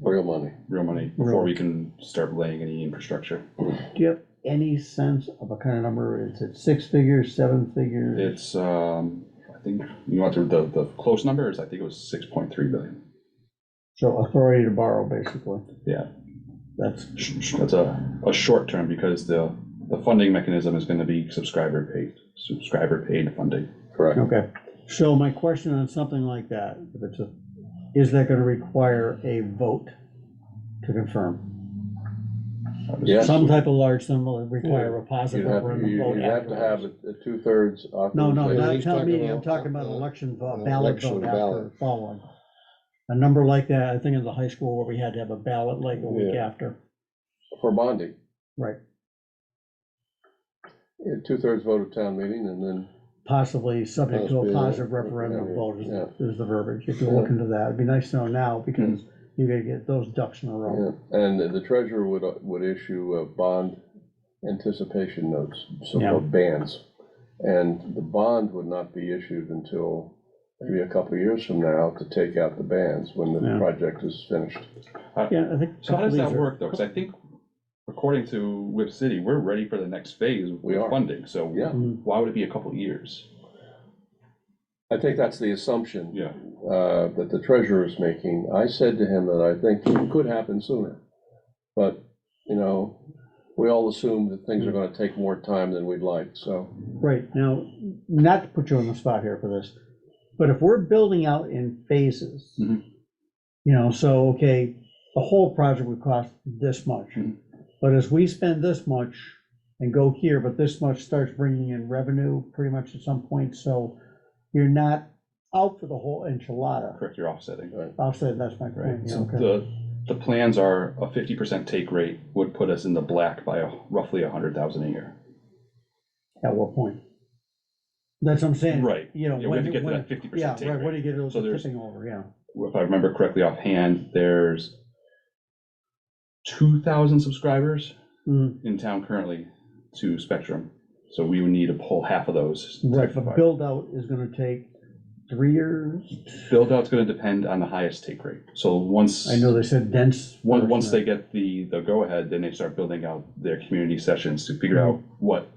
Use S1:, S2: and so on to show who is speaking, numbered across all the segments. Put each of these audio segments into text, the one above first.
S1: real money.
S2: real money, before we can start laying any infrastructure.
S3: Do you have any sense of what kind of number it is? It's six figures, seven figures?
S2: It's, um, I think, you want the, the, the close number is, I think it was six point three billion.
S3: So authority to borrow, basically.
S2: Yeah.
S3: That's,
S2: Sh- sh- That's a, a short term, because the, the funding mechanism is gonna be subscriber paid, subscriber paid funding.
S1: Correct.
S3: okay. So my question on something like that, if it's a, is that gonna require a vote to confirm?
S1: Yes.
S3: Some type of large sum will require a positive
S1: You'd have,
S3: referendum
S1: you-
S3: vote
S1: you'd have to have
S3: afterwards.
S1: a a two-thirds
S3: No, no,
S1: authorization.
S3: not a
S4: He's
S3: town
S4: talking
S3: meeting, I'm
S4: about,
S3: talking about
S4: uh,
S3: election vote,
S4: an
S3: ballot
S4: election
S3: vote after
S4: ballot.
S3: following. A number like that, I think in the high school where we had to have a ballot like a week
S1: Yeah.
S3: after.
S1: For bonding.
S3: Right.
S1: Yeah, Two-thirds vote of town meeting and then,
S3: possibly subject to a
S4: Possibly,
S3: positive
S4: yeah.
S3: referendum vote is,
S1: Yeah.
S3: is the verbiage, if you
S1: Yeah.
S3: look into that, it'd be nice to know now,
S4: Mm.
S3: because you gotta get those ducks in a row.
S1: yeah. and the- the treasurer would, uh, would issue uh, bond anticipation notes, so-called bands. And the bond would not be issued until maybe a couple of years from now to take out the bands when the
S3: Yeah.
S1: project is finished.
S3: Yeah, I think.
S2: So how does
S3: these
S2: that
S3: are-
S2: work though? Cause I think, according to Whip City, we're ready for the next phase
S1: We
S2: with
S1: are.
S2: funding, so
S1: Yeah.
S3: Mm,
S2: why would it be a couple years?
S1: I think that's the assumption.
S2: Yeah,
S1: uh, that the treasurer is making, I said to him that I think it could happen sooner. But, you know, we all assume that things are gonna take more time than we'd like, so.
S3: Right, now, not to put you on the spot here for this, but if we're building out in phases,
S4: Mm-hmm.
S2: Mhm.
S3: you know, so, okay, the whole project would cost this much,
S4: Mm.
S2: Mhm.
S3: but as we spend this much and go here, but this much starts bringing in revenue pretty much at some point, so you're not out for the whole enchilada.
S2: correct, you're offsetting.
S3: Offset, that's my
S2: Right,
S3: point. yeah,
S2: so
S3: okay.
S2: the, the plans are a fifty percent take rate would put us in the black by a- roughly a hundred thousand a year.
S3: At what point? That's what I'm saying.
S2: Right.
S3: You know,
S2: Yeah, we have
S3: when,
S2: to get to
S3: when,
S2: that fifty
S3: yeah,
S2: percent take
S3: right, when
S2: rate.
S3: you get those
S2: So there's-
S3: tipping over, yeah.
S2: If I remember correctly offhand, there's two thousand subscribers
S3: Mm,
S2: in town currently to Spectrum. So we would need to pull half of those. to
S3: Right, but
S2: provide.
S3: build out is gonna take three years.
S2: Build out's gonna depend on the highest take rate. So once,
S3: I know they said dense.
S2: once,
S3: first,
S2: once
S3: and
S2: they get the, the go-ahead, then they start building out their community sessions to figure out
S3: Mm-hmm.
S2: what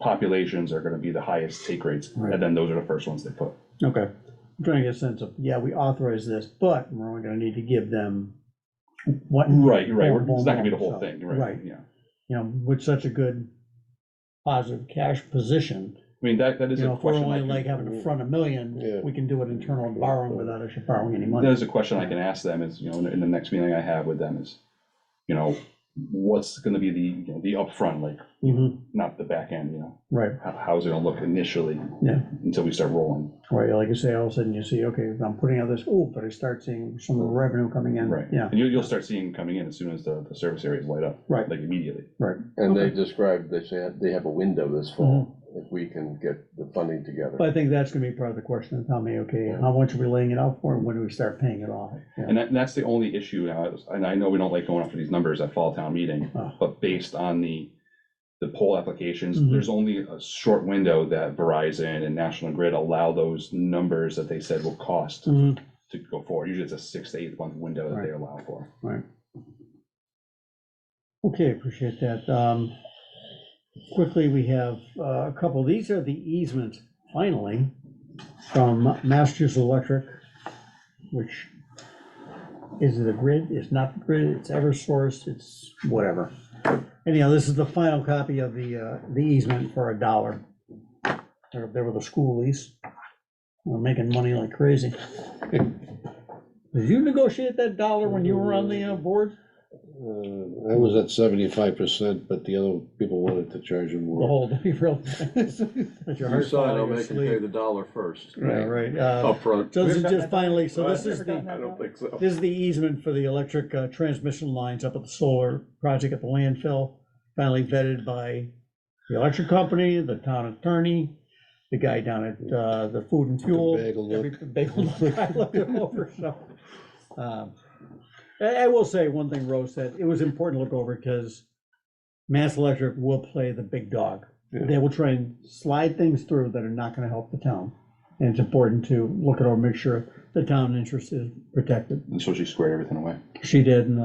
S2: populations are gonna be the highest take rates.
S3: Right.
S2: And then those are the first ones they put.
S3: then- Okay, I'm trying to get a sense of, yeah, we authorize this, but we're only gonna need to give them what, you
S2: Right, right, we're- it's not gonna be the
S3: Boom,
S2: whole
S3: boom, boom,
S2: thing,
S3: so,
S2: right,
S3: right.
S2: yeah.
S3: know, with such a good positive cash position.
S2: I mean, that, that is
S3: You know,
S2: a
S3: if we're
S2: question. I
S3: only
S2: can-
S3: like having to front a million,
S4: Yeah.
S3: we can do it internal borrowing without actually borrowing any
S2: That
S3: money.
S2: is a question I can ask them is, you know, in the- in the next meeting I have with them is, you know, what's gonna be the, you know, the upfront, like,
S3: Mhm,
S2: not the back end, you know?
S3: Right.
S2: How, how's it gonna look initially?
S3: Yeah.
S2: Until we start rolling.
S3: Right, like you say, all of a sudden you see, okay, I'm putting out this, oh, but I start seeing some revenue coming in.
S2: Right.
S3: Yeah,
S2: And you, you'll start seeing coming in as soon as the, the service areas light up.
S3: Right.
S2: Like immediately.
S1: And they described, they said, they have a window this fall, if we can get the funding together.
S3: but I think that's gonna be part of the question, is how many, okay, how much are we laying it out for, and when do we start paying it off? Yeah.
S2: And that, and that's the only issue, uh, is- and I know we don't like going after these numbers at fall town meeting,
S3: Oh.
S2: but based on the, the poll applications,
S3: Mhm.
S2: there's only a short window that Verizon and National Grid allow those numbers that they said will cost
S3: Mhm,
S2: to go forward. Usually it's a six to eight month window that they allow for.
S3: Okay, appreciate that. Um, Quickly, we have uh, a couple, these are the easements, finally, from Masters Electric, which is the grid, it's not the grid, it's Eversource, it's whatever. Anyhow, this is the final copy of the, uh, the easement for a dollar. They're up there with a school lease. We're making money like crazy. Did you negotiate that dollar when you were on the uh, board,
S4: Uh, I was at seventy-five percent, but the other people wanted to charge
S3: the
S4: him more.
S3: whole, to be real? If your
S1: You
S3: heart
S1: saw it,
S3: fell
S1: I'll
S3: out of
S1: make
S3: your
S1: them pay
S3: sleeve.
S1: the dollar first,
S3: Yeah, right. Uh,
S1: upfront.
S3: So this is just finally, so this is
S1: I
S3: the,
S1: don't think so.
S3: this is the easement for the electric uh, transmission lines up at the solar project at the landfill. Finally vetted by the electric company, the town attorney, the guy down at uh, the food and fuel.
S4: bagel
S3: every-
S4: look.
S3: the bagel look, I looked it over, so. um, I I will say one thing Rose said, it was important to look over because Mass Electric will play the big dog.
S4: Yeah.
S3: They will try and slide things through that are not gonna help the town. And it's important to look at over, make sure the town interest is protected.
S2: And so she squared everything away.
S3: She did, and